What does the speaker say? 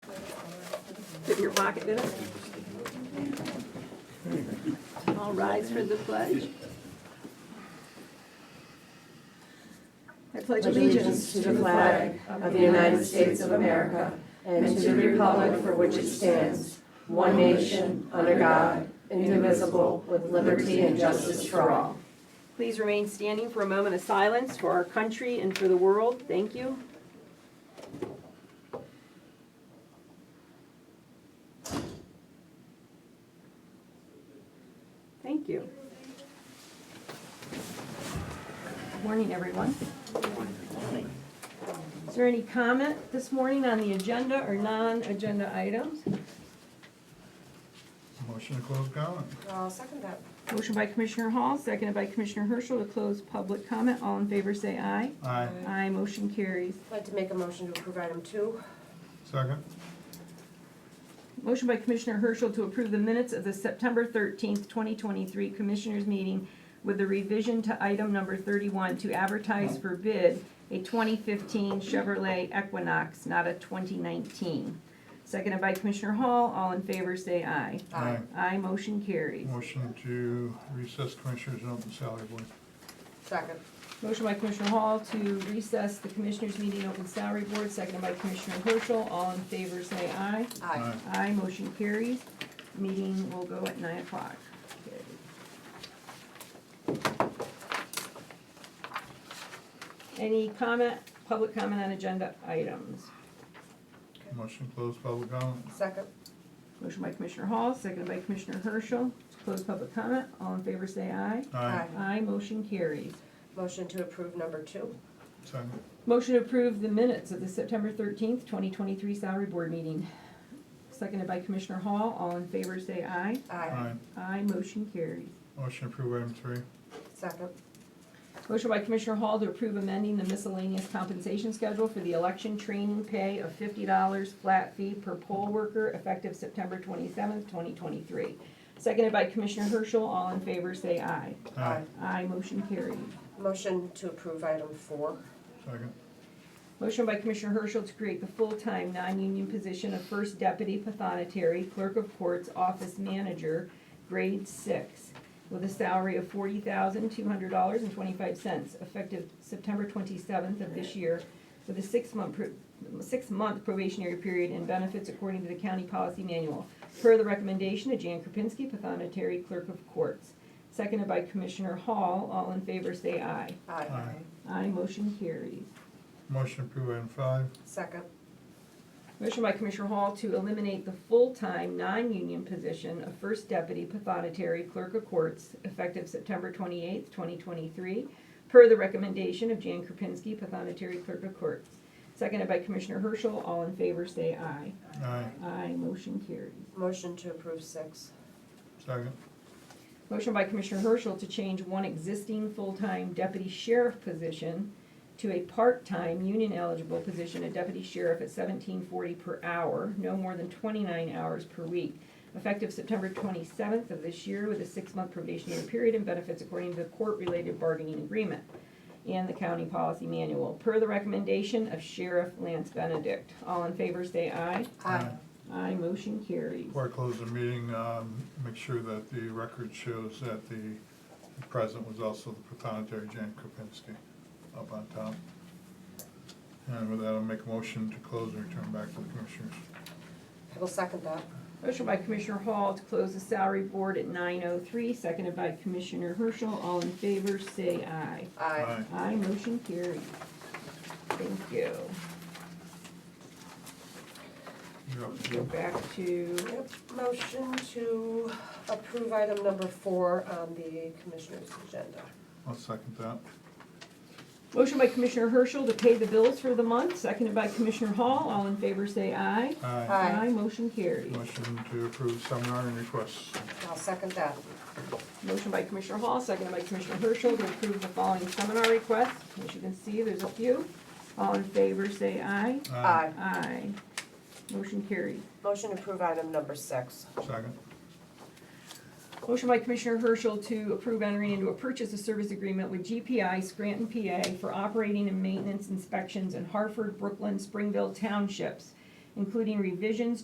Fit in your pocket, did it? All rise for the pledge. I pledge allegiance allegiance to the flag of the United States of America and to the republic for which it stands, one nation, under God, indivisible, with liberty and justice for all. Please remain standing for a moment of silence for our country and for the world. Thank you. Thank you. Good Morning, everyone. Is there any comment this morning on the agenda or non-agenda items? Motion to close comment. I'll second that. Motion by Commissioner Hall, seconded by Commissioner Herschel to close public comment. All in favor, say aye. Aye. Aye, motion carries. I'd like to make a motion to approve item two. Second? Motion by Commissioner Herschel to approve the minutes of the September 13th, 2023 Commissioners Meeting with the revision to item number 31 to advertise for bid a 2015 Chevrolet Equinox, not a 2019. Seconded by Commissioner Hall. All in favor, say aye. Aye. Aye, motion carries. Motion to recess Commissioners and open salary board. Second. Motion by Commissioner Hall to recess the Commissioners Meeting Open Salary Board, seconded by Commissioner Herschel. All in favor, say aye. Aye. Aye, motion carries. Meeting will go at nine o'clock. Any comment, public comment on agenda items? Motion to close public comment. Second. Motion by Commissioner Hall, seconded by Commissioner Herschel. To Close public comment. All in favor, say aye. Aye. Aye, motion carries. Motion to approve number two. Second? Motion to approve the minutes of the September thirteenth, twenty twenty-three salary board meeting. Seconded by Commissioner Hall. All in favor, say aye. Aye. Aye. Aye, motion carries. Motion to approve item three. Second. Motion by Commissioner Hall to approve amending the miscellaneous compensation schedule for the election training pay of fifty dollars flat fee per poll worker effective September twenty-seventh, twenty twenty-three. Seconded by Commissioner Herschel, all in favor say aye. Aye, motion carried. Motion to approve item four. Second? Motion by Commissioner Herschel to create the full-time, non-union position of First Deputy Pathonetary Clerk of Courts Office Manager, grade six, with a salary of forty thousand, two hundred dollars and twenty-five cents, effective September twenty-seventh of this year, with a six-month, pro- six-month probationary period and benefits according to the county policy manual, per the recommendation of Jan Kropinski, Pathonetary Clerk of Courts. Seconded by Commissioner Hall. All in favor, say aye. Aye. Aye. Aye, motion carries. Motion to approve item five. Second. Motion by Commissioner Hall to eliminate the full-time, non-union position of First Deputy Pathonetary Clerk of Courts effective September twenty-eighth, twenty twenty-three, per the recommendation of Jan Kropinski, Pathonetary Clerk of Courts. Seconded by Commissioner Herschel. All in favor, say aye. Aye. Aye, motion carries. Motion to approve six. Second? Motion by Commissioner Herschel to change one existing full-time deputy sheriff position to a part-time, union-eligible position of deputy sheriff at seventeen forty per hour, no more than twenty-nine hours per week, effective September twenty-seventh of this year with a six-month probationary period and benefits according to the court-related bargaining agreement and the county policy manual, per the recommendation of Sheriff Lance Benedict. All in favor, say aye. Aye, motion carries. Before I close the meeting, um, make sure that the record shows that the the president was also the protonotary Jan Kropinski up on top. And with that, I'll make a motion to close and return back to the Commissioners. I will second that. Motion by Commissioner Hall to close the salary board at nine oh three, seconded by Commissioner Herschel. All in favor, say aye. Aye. Aye, motion carried. Thank you. You're up. Go back to, Yep. Motion to approve item number four on the commissioner's agenda. I'll second that. motion by Commissioner Herschel to pay the bills for the month, seconded by Commissioner Hall. All in favor, say aye. Aye. Aye. motion carried. Motion to approve seminar and requests. I'll second that. Motion by Commissioner Hall, seconded by Commissioner Herschel to approve the following seminar requests. As you can see, there's a few. All in favor, say aye. Aye. Aye. Motion carried. Motion to approve item number six. Second. Motion by Commissioner Herschel to approve entering into a purchase of service agreement with GPI Scranton, PA for operating and maintenance inspections in Hartford, Brooklyn, Springville townships, including revisions